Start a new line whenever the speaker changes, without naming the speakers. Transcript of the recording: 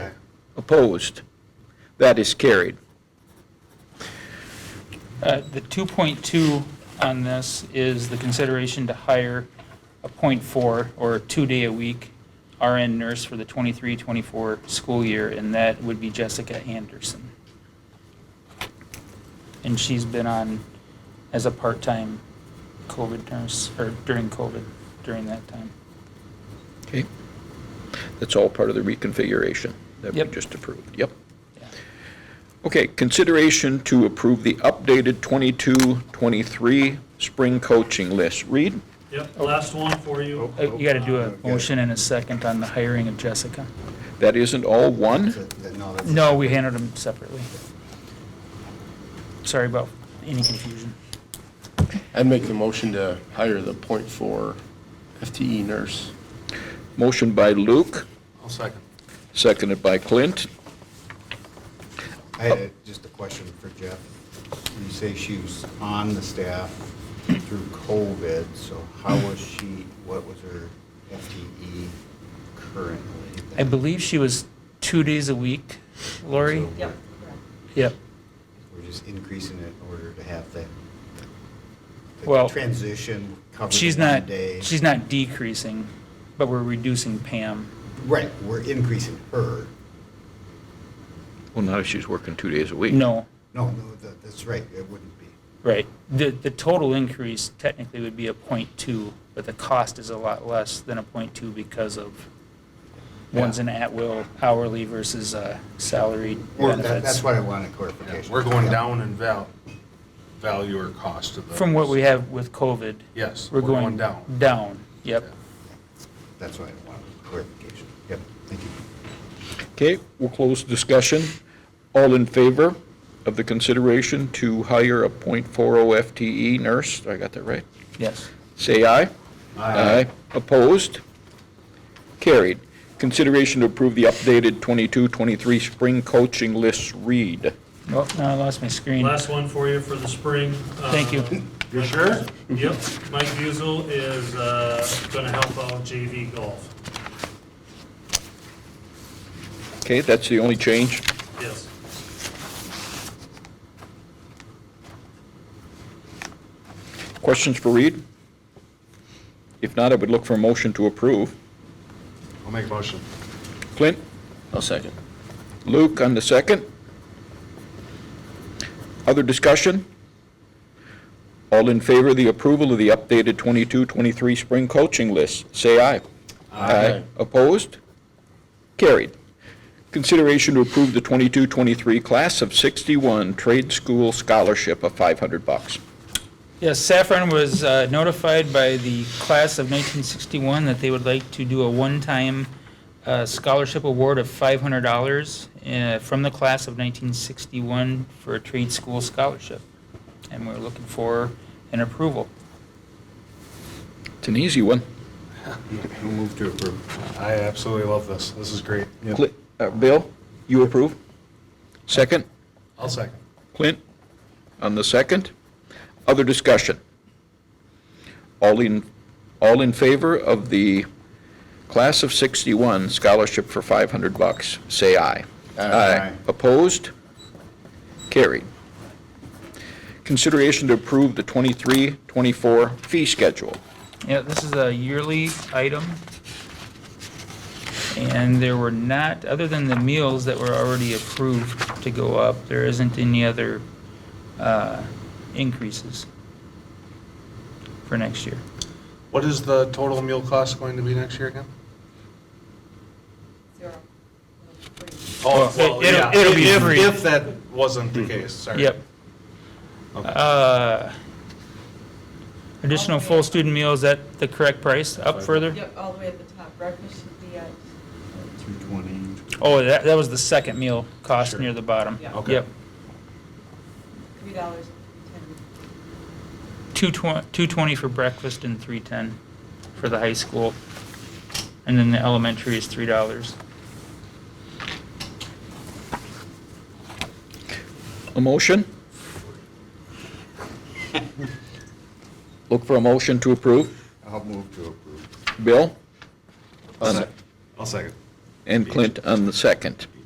Opposed? That is carried.
Uh, The 2.2 on this is the consideration to hire a .4 or two-day-a-week RN nurse for the 23-24 school year, and that would be Jessica Anderson. And she's been on as a part-time COVID nurse, or during COVID, during that time.
Okay? That's all part of the reconfiguration that we
Yep.
just approved. Yep.
Yeah.
Okay, consideration to approve the updated 22-23 spring coaching list. Read.
Yep, last one for you.
Uh, You got to do a motion and a second on the hiring of Jessica.
that isn't all one.
No, that's,
No, we handled them separately. Sorry about any confusion.
I'd make the motion to hire the .4 FTE E nurse.
Motion by Luke,
I'll second.
seconded by Clint.
I had a- just a question for Jeff. You say she was on the staff through COVID, so how was she, what was her FTE currently?
I believe she was two days a week, Lori?
So
Yep,
Yep.
We're just increasing it in order to have that. the
Well,
Transition covered
She's
in one
not,
day.
she's not decreasing, but we're reducing Pam.
Right, we're increasing her.
Well, now she's working two days a week.
No,
No, no, that, that's right, it wouldn't be.
right. The, the total increase technically would be a point two, but the cost is a lot less than a point two because of one's an at-will hourly versus a salaried
Or that,
benefits.
that's what I wanted clarification.
We're going down in val, value or cost of those.
From what we have with COVID,
Yes,
we're going.
down.
Down, yep.
That's what I wanted clarification. Yep, thank you.
Okay, we'll close discussion. All in favor of the consideration to hire a .40 FTE E nurse? I got that right?
Yes.
Say aye. Aye. Opposed? Carried. Consideration to approve the updated 22-23 spring coaching list. Read.
Oh, no, I lost my screen.
Last one for you for the spring.
Thank you.
You sure? Yep, Mike Buzel is uh, gonna help out JV golf,
Okay, that's the only change.
yes.
Questions for Reed? If not, I would look for a motion to approve.
I'll make a motion.
Clint?
I'll second.
Luke on the second. Other discussion? All in favor of the approval of the updated 22-23 spring coaching list, say aye. Aye. Opposed? Carried. Consideration to approve the 22-23 class of 61 trade school scholarship of 500 bucks.
Yes, Saffron was uh, notified by the class of 1961 that they would like to do a one-time uh, scholarship award of $500 uh, from the class of 1961 for a trade school scholarship. And we're looking for an approval.
It's an easy one.
We'll move to approve. I absolutely love this. This is great.
Cli- uh, Bill, you approve? Second?
I'll second.
Clint on the second. Other discussion? All in, all in favor of the class of 61 scholarship for 500 bucks, say aye.
Aye.
Opposed? Carried. Consideration to approve the 23-24 fee schedule.
Yeah, this is a yearly item. And there were not, other than the meals that were already approved to go up, there isn't any other uh, increases for next year.
What is the total meal cost going to be next year again?
zero.
Well, it- it'll-
yeah.
it'll be
If-
free.
If that wasn't the case, sorry.
Yep.
Okay.
Uh, Additional full student meals at the correct price, up further?
Yep, all the way at the top, breakfast should be at,
Two twenty.
Oh, that, that was the second meal cost near the bottom.
Yeah.
Okay.
Yep.
three dollars and ten.
Two twen- 220 for breakfast and 310 for the high school. And then the elementary is $3.
A motion? Look for a motion to approve.
I'll move to approve.
Bill
I'll sec- I'll second.
and Clint on the second.